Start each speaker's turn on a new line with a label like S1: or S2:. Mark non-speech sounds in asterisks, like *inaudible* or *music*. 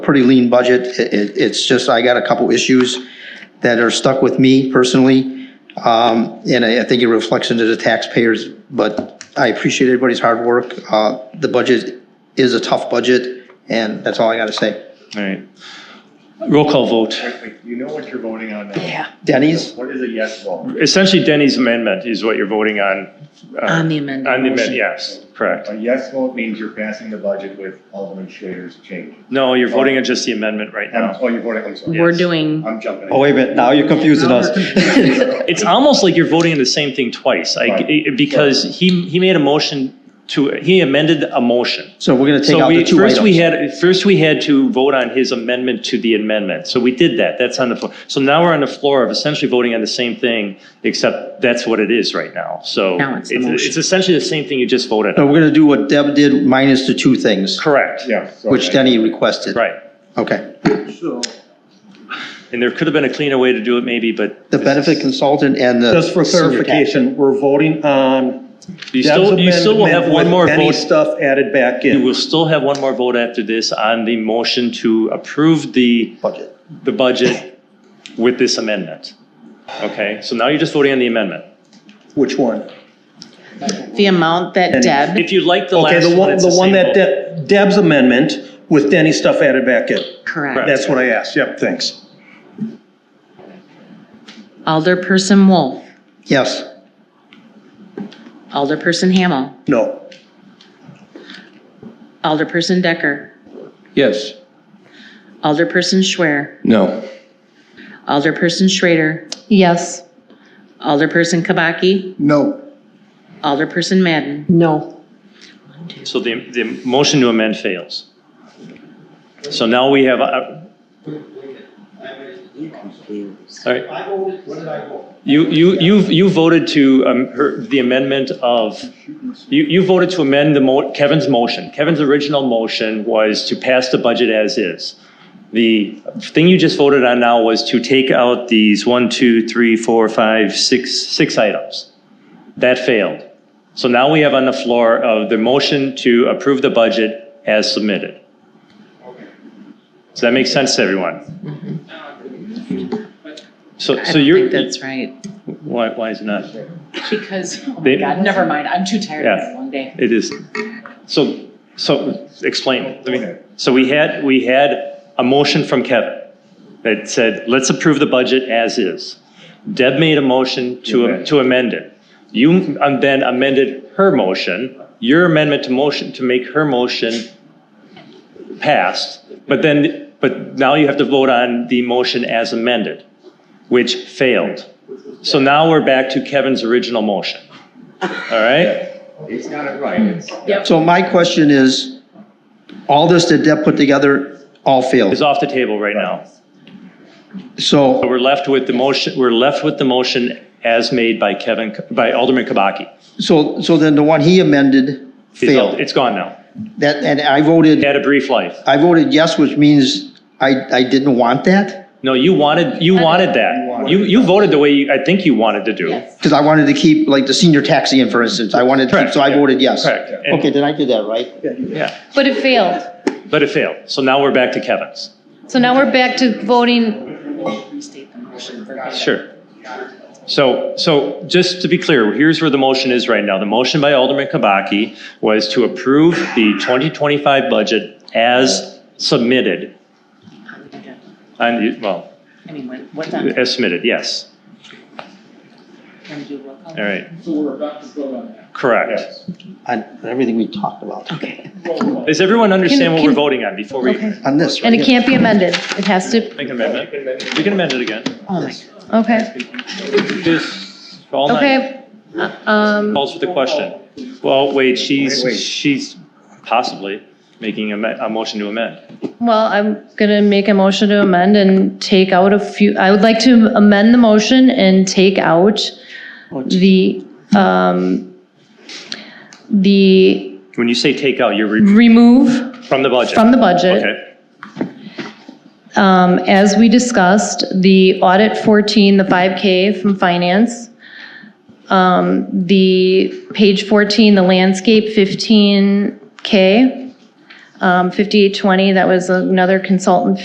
S1: pretty lean budget. It, it, it's just, I got a couple issues that are stuck with me personally. Um, and I, I think it reflects into the taxpayers, but I appreciate everybody's hard work. Uh, the budget is a tough budget and that's all I gotta say.
S2: All right. Roll call vote.
S3: Wait, You know what you're voting on now.
S4: Yeah,
S1: Denny's,
S3: What is a yes vote?
S2: Essentially Denny's amendment is what you're voting on. uh,
S4: on the amendment.
S2: On the amendment,
S4: motion.
S2: yes, correct.
S3: A yes vote means you're passing the budget with Alderman Schrader's change.
S2: No, you're voting on just the amendment right
S3: I'm-
S2: now.
S3: Oh, you're voting, I'm sorry.
S4: We're
S2: Yes.
S4: doing,
S3: I'm jumping.
S5: Oh, wait a minute, now you're confusing us.
S2: It's almost like you're voting on the same thing twice, I-
S3: Right.
S2: because he, he made a motion to, he amended a motion.
S1: *laughs* so we're gonna take
S2: So
S1: out the
S2: we,
S1: two
S2: first we
S1: items.
S2: had, first we had to vote on his amendment to the amendment. So we did that. That's on the floor. So now we're on the floor of essentially voting on the same thing, except that's what it is right now. So
S4: Now it's the motion.
S2: it's essentially the same thing you just voted
S1: So
S2: on.
S1: we're gonna do what Deb did minus the two things,
S2: Correct.
S3: Yeah. sorry.
S1: which Denny requested.
S2: Right.
S1: Okay.
S2: And there could have been a cleaner way to do it maybe, but.
S1: The benefit consultant and the.
S5: Just for
S1: senior tax.
S5: clarification, we're voting on
S2: You
S5: Deb's
S2: still, you still will have
S5: amendment
S2: one more
S5: with any
S2: vote.
S5: stuff added back
S2: You will
S5: in.
S2: still have one more vote after this on the motion to approve the,
S1: Budget.
S2: the budget with this amendment. Okay, so now you're just voting on the amendment.
S5: Which one?
S4: the amount that
S5: And-
S4: Deb,
S2: If you like the
S5: Okay,
S2: last
S5: the
S2: one,
S5: one,
S2: it's
S5: the
S2: the
S5: one
S2: same
S5: that
S2: vote.
S5: De- Deb's amendment with Denny's stuff added back in.
S4: correct.
S5: That's what I asked, yep, thanks.
S4: Alderperson Wolf,
S1: Yes.
S4: Alderperson Hamel,
S5: No,
S4: Alderperson Decker,
S6: Yes.
S4: Alderperson Schwer,
S6: No.
S4: Alderperson Schrader,
S7: Yes.
S4: Alderperson Kabaki,
S5: no,
S4: Alderperson Madden.
S7: No.
S2: So the, the motion to amend fails. So now we have, uh, all right. You, you, you, you voted to, um, her, the amendment of, you, you voted to amend the mo, Kevin's motion. Kevin's original motion was to pass the budget as is. The thing you just voted on now was to take out these one, two, three, four, five, six, six items. That failed. So now we have on the floor of the motion to approve the budget as submitted. Does that make sense to everyone? So,
S4: Mm-hmm. I
S2: so
S4: don't
S2: you're,
S4: think that's right.
S2: why, why is it not?
S8: Because, oh my
S2: They-
S8: God, never mind, I'm too tired of
S2: Yeah.
S8: this long day.
S2: It is, so, so, explain. I mean,
S3: Okay.
S2: So we had, we had a motion from Kevin that said, let's approve the budget as is. Deb made a motion to,
S3: Amend.
S2: to amend it. You um, then amended her motion, your amendment to motion, to make her motion passed, but then, but now you have to vote on the motion as amended, which failed. So now we're back to Kevin's original motion. All right?
S3: He's got it right. It's-
S1: So my question is, all this that Deb put together, all
S2: is
S1: failed.
S2: off the table right now. But
S1: So,
S2: we're left with the motion, we're left with the motion as made by Kevin, by Alderman Kabaki.
S1: so, so then the one he amended
S2: It's all-
S1: failed.
S2: It's gone now.
S1: That, and I voted,
S2: It had a brief life.
S1: I voted yes, which means I, I didn't want that,
S2: No, you wanted, you wanted that. You, you voted the way you, I think you wanted to do.
S8: Yes.
S1: because I wanted to keep, like, the senior tax in, for instance, I wanted to keep,
S2: Correct,
S1: so I
S2: yeah.
S1: voted yes.
S2: Correct.
S1: Okay,
S2: And-
S1: then I did that, right?
S2: Yeah,
S7: But it failed.
S2: but it failed. So now we're back to Kevin's.
S7: So now we're back to voting.
S8: Restate the motion for him.
S2: Sure. So, so just to be clear, here's where the motion is right now. The motion by Alderman Kabaki was to approve the 2025 budget as submitted. And, well,
S8: I mean, what- what's on,
S2: as submitted, yes.
S8: can do roll call?
S2: All right. So we're about to vote on that. Correct.
S3: Yes.
S1: On everything we talked about,
S4: Okay.
S2: Does everyone understand what
S7: Can-
S2: we're
S7: can-
S2: voting on before we
S7: Okay.
S1: on this,
S7: And
S1: right
S7: it
S1: here.
S7: can't be amended. It has to,
S2: make an amendment? We can amend it again.
S4: Oh my,
S7: okay,
S2: This, all night,
S7: okay. Uh, Um,
S2: calls for the question. Well, wait, she's,
S3: Wait, wait.
S2: she's possibly making a, me- a motion to amend.
S7: well, I'm gonna make a motion to amend and take out a few, I would like to amend the motion and take out the, um, the
S2: When you say take out, you're re-
S7: remove
S2: from the budget?
S7: from the budget.
S2: Okay,
S7: Um, As we discussed, the audit 14, the 5K from finance, um, the page 14, the landscape 15K, um, 5820, that was another consultant